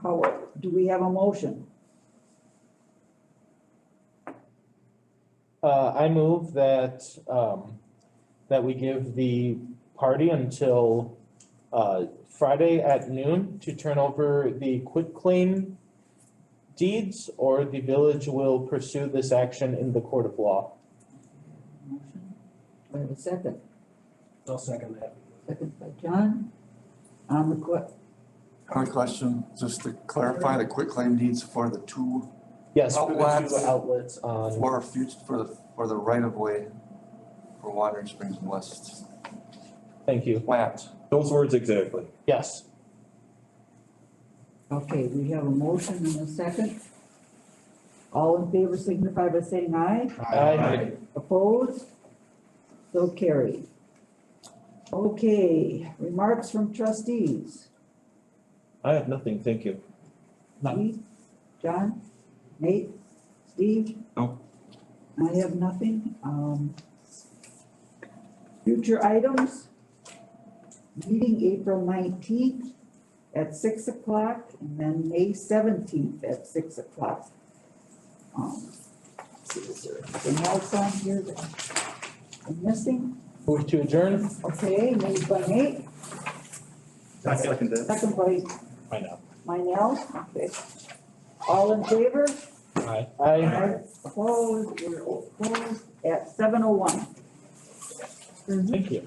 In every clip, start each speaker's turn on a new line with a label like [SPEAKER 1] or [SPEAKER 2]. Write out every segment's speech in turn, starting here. [SPEAKER 1] How, do we have a motion?
[SPEAKER 2] Uh, I move that, um, that we give the party until, uh, Friday at noon to turn over the quitclaim deeds, or the village will pursue this action in the court of law.
[SPEAKER 1] Motion. Do I have a second?
[SPEAKER 3] I'll second that.
[SPEAKER 1] Second by John. On the que,
[SPEAKER 4] Another question, just to clarify the quitclaim deeds for the two,
[SPEAKER 2] Yes, for the two
[SPEAKER 4] Outlets.
[SPEAKER 2] outlets on,
[SPEAKER 4] for future, for the, for the right of way for Watering Springs West
[SPEAKER 2] thank you,
[SPEAKER 4] plant.
[SPEAKER 5] Those words exactly.
[SPEAKER 2] yes.
[SPEAKER 1] okay, we have a motion and a second. All in favor signify by saying aye.
[SPEAKER 2] I,
[SPEAKER 1] Opposed? So carried. Okay, remarks from trustees.
[SPEAKER 5] I have nothing, thank you.
[SPEAKER 3] None.
[SPEAKER 1] Keith, John, Nate, Steve?
[SPEAKER 5] No.
[SPEAKER 1] I have nothing, um. Future items. Meeting April nineteenth at six o'clock and then May seventeenth at six o'clock. Um, let's see, is there anything else on here that I'm missing?
[SPEAKER 2] move to adjourn,
[SPEAKER 1] Okay, made by Nate, second by
[SPEAKER 2] I know,
[SPEAKER 1] Minell, okay. All in favor?
[SPEAKER 2] I, I,
[SPEAKER 1] Opposed, we're opposed at seven oh one.
[SPEAKER 2] thank you.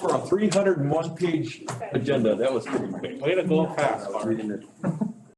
[SPEAKER 5] For a three hundred and one page agenda, that was pretty quick.
[SPEAKER 2] Way to go fast,
[SPEAKER 5] Reading it.